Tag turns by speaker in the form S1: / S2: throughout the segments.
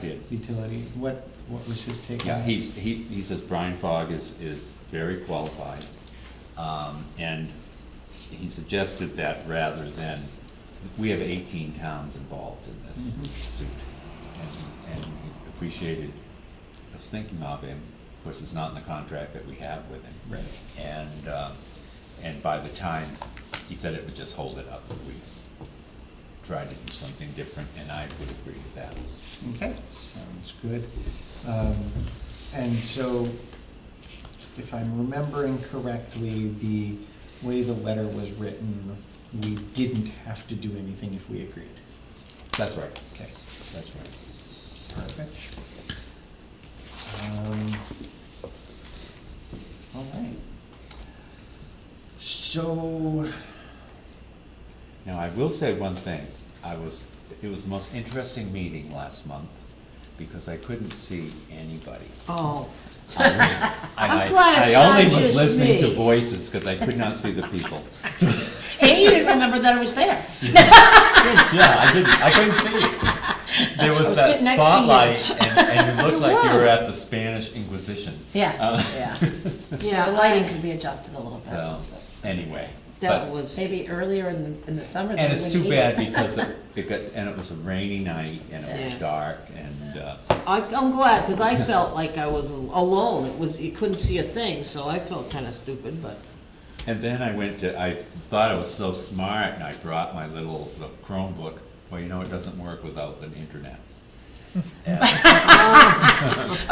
S1: did.
S2: utility, what, what was his take on
S1: Yeah,
S2: it?
S1: he's, he, he says Brian Fogg is, is very qualified. Um, and he suggested that rather than, we have eighteen towns involved in this
S2: Mhm.
S1: suit. And, and he appreciated us thinking of him, of course, it's not in the contract that we have with him.
S2: Right.
S1: And, um, and by the time, he said it would just hold it up if we tried to do something different, and I would agree with that.
S2: Okay, sounds good. Um, And so, if I'm remembering correctly, the way the letter was written, we didn't have to do anything if we agreed.
S1: That's right,
S2: Okay,
S1: that's right.
S2: perfect. Um, All right. So,
S1: Now, I will say one thing, I was, it was the most interesting meeting last month, because I couldn't see anybody.
S3: Oh,
S1: I was- and I-
S3: glad it's
S1: I only
S3: not
S1: was
S3: just
S1: listening to
S3: me.
S1: voices, because I could not see the people.
S3: and you didn't remember that I was there.
S1: Yeah, I didn't, I couldn't see you. There
S3: I
S1: was
S3: was
S1: that
S3: sitting next to you.
S1: spotlight, and, and you looked
S3: It
S1: like you were
S3: was.
S1: at the Spanish Inquisition.
S3: Yeah,
S1: Uh,
S3: yeah.
S4: Yeah,
S3: The lighting could be adjusted a little bit.
S1: So, anyway.
S4: That
S1: but-
S4: was,
S3: Maybe earlier in the, in the summer.
S1: And
S3: they
S1: it's
S3: wouldn't
S1: too
S3: need
S1: bad
S3: it.
S1: because it, it got, and it was a rainy night, and it was
S4: Yeah.
S1: dark, and, uh,
S4: I, I'm glad, because I felt like I was alone, it was, you couldn't see a thing, so I felt kinda stupid, but,
S1: And then I went to, I thought I was so smart and I brought my little the Chromebook. Well, you know, it doesn't work without an internet. And-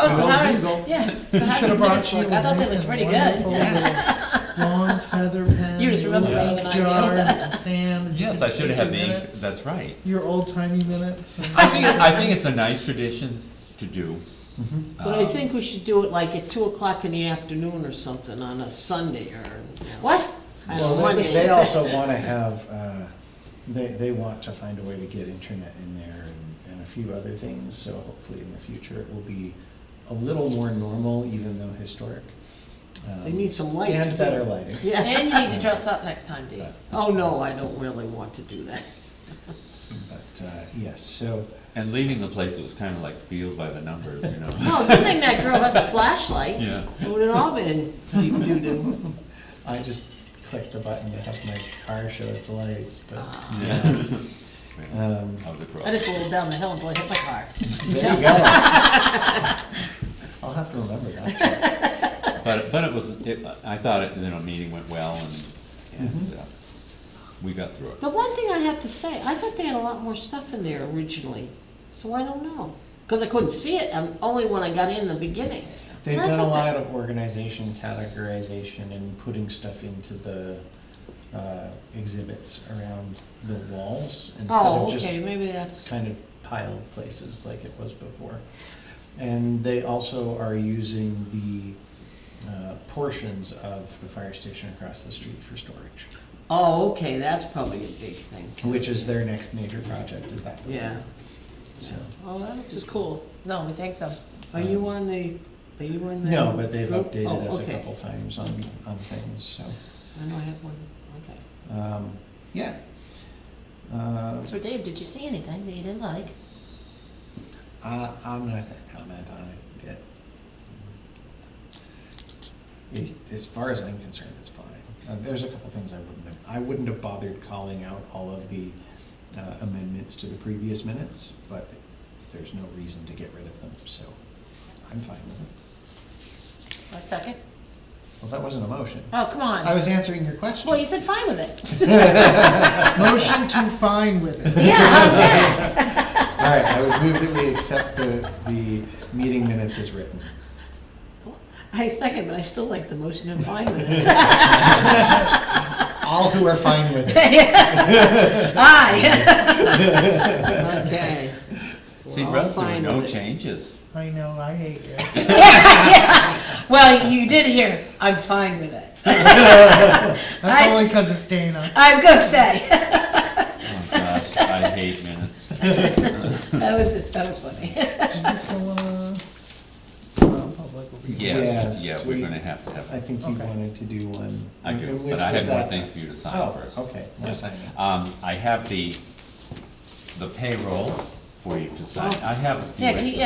S3: Oh, so
S5: Well,
S3: how,
S5: these all-
S3: yeah, so
S5: You
S3: how
S5: should
S3: these
S5: have
S3: minutes
S5: brought you a
S3: look? I thought they
S5: nice
S3: looked
S5: and
S3: pretty
S5: wonderful
S3: good.
S5: little long feather pen.
S3: You just
S5: your
S3: remember
S5: little
S3: being an ideal.
S5: Jar and some sand. and
S1: Yes, I should have
S5: your
S1: the, ink-
S5: minutes,
S1: that's right.
S5: Your old timey minutes. and-
S1: I think, I think it's a nice tradition to do.
S3: Mm-hmm.
S1: Uh,
S4: but
S3: Um.
S4: I think we should do it like at two o'clock in the afternoon or something on a Sunday or. you know,
S3: What?
S4: I
S2: Well,
S4: don't know,
S2: they-
S4: Monday.
S2: They also wanna have, uh, they, they want to find a way to get internet in there and, and a few other things, so hopefully in the future it will be a little more normal, even though historic. Um,
S4: They need some lights,
S2: And
S4: too.
S2: better lighting.
S4: Yeah,
S3: And you need to dress up next time, Dee.
S4: oh no, I don't really want to do that.
S2: But, uh, yes, so,
S1: And leaving the place, it was kind of like field by the numbers, you know?
S4: No, good thing that girl had the flashlight.
S1: Yeah.
S4: It would've all been deep doo-doo.
S2: I just clicked the button to have my car show its lights, but,
S1: Yeah.
S4: Ah.
S2: um,
S1: I was
S3: Uh, I
S1: across.
S3: just rolled down the hill until I hit my car.
S2: there you go. I'll have to remember that.
S1: But, but it was, it, I thought, it you know, meeting went well and, and,
S3: Mm-hmm.
S1: uh, we got through it.
S4: The one thing I have to say, I thought they had a lot more stuff in there originally, so I don't know. Cause I couldn't see it, um, only when I got in the beginning.
S2: They've
S4: And I
S2: done a
S4: thought
S2: lot
S4: that-
S2: of organization, categorization, and putting stuff into the uh, exhibits around the walls instead
S4: Oh,
S2: of just
S4: okay, maybe that's,
S2: kind of piled places like it was before. And they also are using the uh, portions of the fire station across the street for storage,
S4: oh, okay, that's probably a big thing. too.
S2: which is their next major project, is that. building.
S4: Yeah,
S2: So-
S4: oh, that is cool.
S3: No, we thank them.
S4: Are you on the, are you on the?
S2: Uh, No, but they've
S4: group? Oh,
S2: updated us a
S4: okay.
S2: couple times on, on things, so,
S4: I know I have one, okay.
S2: um, yeah. Uh,
S3: So Dave, did you see anything that you didn't like?
S2: Uh, I'm not gonna comment on it yet. It, as far as I'm concerned, it's fine. Uh, there's a couple things I wouldn't have, I wouldn't have bothered calling out all of the uh, amendments to the previous minutes, but there's no reason to get rid of them, so I'm fine with it.
S3: A second?
S2: Well, that wasn't a motion.
S3: Oh, come
S2: I
S3: on.
S2: was answering your question.
S3: Well, you said fine with it.
S5: Motion to fine with it.
S3: Yeah, how's that?
S2: All right, I would move that we accept the, the meeting minutes as written.
S4: I second, but I still like the motion and fine with it.
S2: All who are fine with it.
S3: Aye.
S4: Okay. We're
S1: See,
S4: all
S1: Russ, there were
S4: fine
S1: no
S4: with it.
S1: changes.
S5: I know, I hate you.
S3: Well, you did hear, I'm fine with it.
S5: That's
S3: I-
S5: only because it's Dana.
S3: I was gonna say,
S1: Oh, gosh, I hate minutes.
S3: that was just, that was funny.
S5: Do you still wanna? non-public will be-
S1: Yes,
S2: Yes,
S1: yeah, we're
S2: we-
S1: gonna have to have.
S2: I think you
S5: Okay.
S2: wanted to do one.
S1: I do,
S2: And which
S1: but I
S2: was
S1: have more
S2: that?
S1: things for you to sign
S2: Oh,
S1: first.
S2: okay, more signing.
S1: Um, I have the, the payroll for you to sign. I have a few
S3: Yeah,
S2: Oh.
S3: can you-
S1: extra.
S3: yeah,